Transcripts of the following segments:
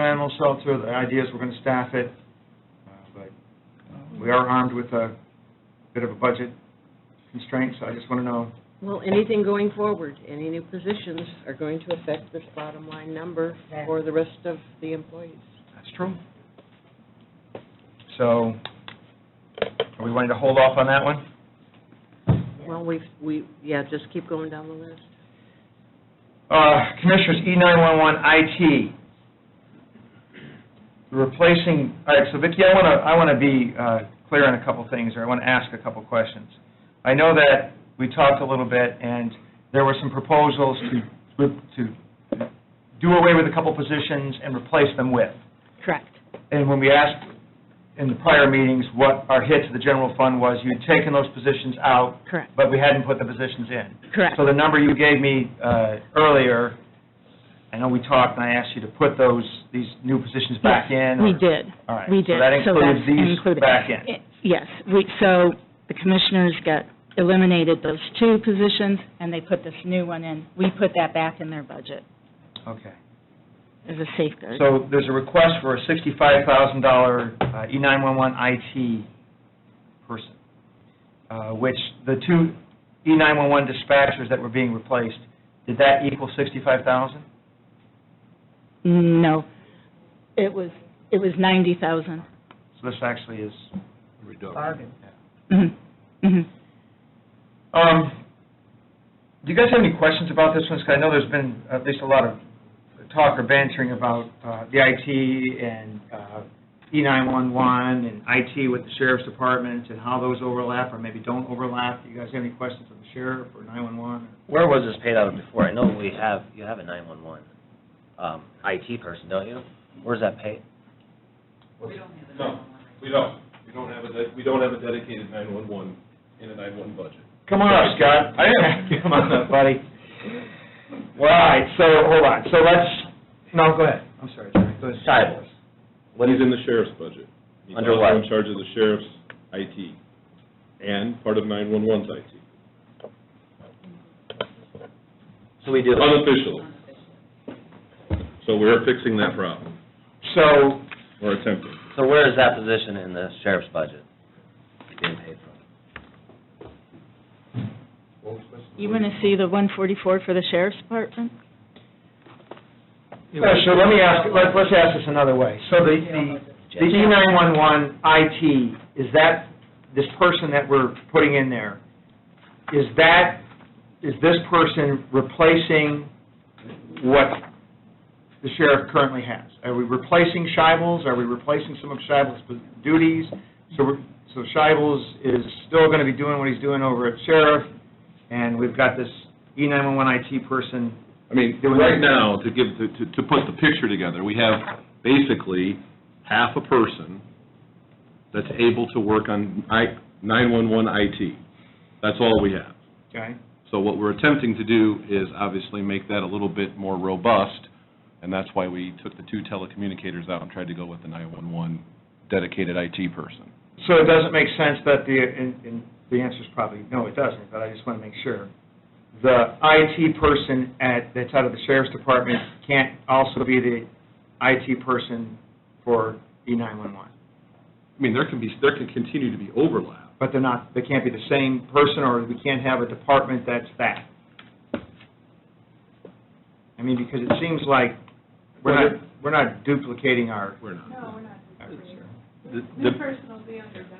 animal shelter, the idea is we're going to staff it, uh, but uh, we are armed with a bit of a budget constraint, so I just want to know, Well, anything going forward, any new positions are going to affect this bottom line number for the rest of the employees. that's true. So, are we wanting to hold off on that one? Well, we've, we, yeah, just keep going down the list. Uh, Commissioners, E911 IT, replacing, all right, so Vicki, I want to, I want to be uh, clear on a couple things, or I want to ask a couple questions. I know that we talked a little bit, and there were some proposals to, to do away with a couple positions and replace them with. Correct. And when we asked in the prior meetings what our hit to the general fund was, you had taken those positions out. Correct. But we hadn't put the positions in. Correct. So the number you gave me uh, earlier, I know we talked and I asked you to put those, these new positions back in. Yes, we or- did. All right, We so did. that includes that's these included. back in. I- Yes, we, so the commissioners got, eliminated those two positions, and they put this new one in. We put that back in their budget Okay. as a safeguard. So there's a request for a $65,000 uh, E911 IT person, uh, which the two E E911 dispatchers that were being replaced, did that equal 65,000? No, it was, it was 90,000. So this actually is. Bargain. Mhm, mhm. Um, Do you guys have any questions about this one? Because I know there's been at least a lot of talk or bantering about uh, the IT and uh, E911 and IT with the sheriff's department and how those overlap or maybe don't overlap. Do you guys have any questions on the sheriff or 911? Where was this paid out of before? I know we have, you have a 911 um, IT person, don't you? Where's that paid? No, we don't. We don't have a, de- we don't have a dedicated 911 in a 911 budget. Come on up, Scott. I am. Come on up, buddy. Well, all right, so, hold on. So let's, no, go ahead. I'm sorry, Jerry. Go ahead. Cyber. What He's is, in the sheriff's budget. He's Under also what? in charge of the sheriff's IT and part of 911's IT, so we do, unofficially. So we're fixing that problem, So, or attempting. so where is that position in the sheriff's budget being paid from? You want to see the 144 for the sheriff's department? yeah, so let me ask, let's, let's ask this another way. So the, the, E the E911 IT, is that, this person that we're putting in there, is that, is this person replacing what the sheriff currently has? Are we replacing Shibels? Are we replacing some of Shibels' duties? So, we're- so Shibels is still going to be doing what he's doing over at sheriff, and we've got this E E911 IT person I mean, Doing right that. now, to give, to, to- to put the picture together, we have basically half a person that's able to work on I, 911 IT. That's all we have. Okay. So what we're attempting to do is obviously make that a little bit more robust, and that's why we took the two telecommunicators out and tried to go with the 911 dedicated IT person. So it doesn't make sense that the, and, and the answer's probably, no, it doesn't, but I just want to make sure. The IT person at, that's out of the sheriff's department can't also be the IT person for E E911. I mean, there can be, there can continue to be overlap. But they're not, they can't be the same person, or we can't have a department that's that. I mean, because it seems like we're not, we're not duplicating our, We're not. No, we're not. our The- New The, person will be under Don,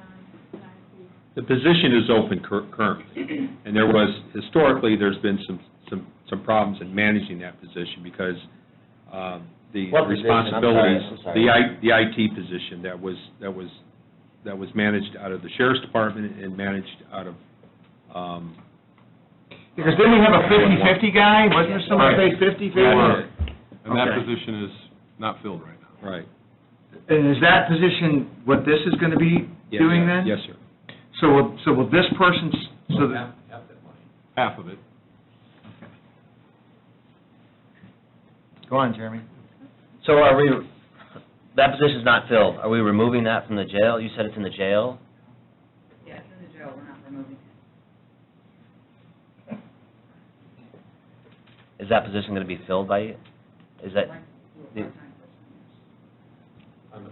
not you. the position is open cur- currently, and there was, historically, there's been some, some, some problems in managing that position because um, the What position? I'm sorry, responsibilities. I'm sorry. The I, the IT position that was, that was, that was managed out of the sheriff's department and managed out of, um, Because didn't we have a 50-50 guy? Wasn't there someone say 50-50? And that Okay. position is not filled right now. right. And is that position what this is going to be Yeah, doing yeah, then? Yes, sir. So, will- so will this person, s- so, the- Half of it. go on, Jeremy. So are we, that position's not filled, are we removing that from the jail? You said it's in the jail? Yeah, it's in the jail, we're not removing it. Is that position going to be filled by you? Is that, Part-time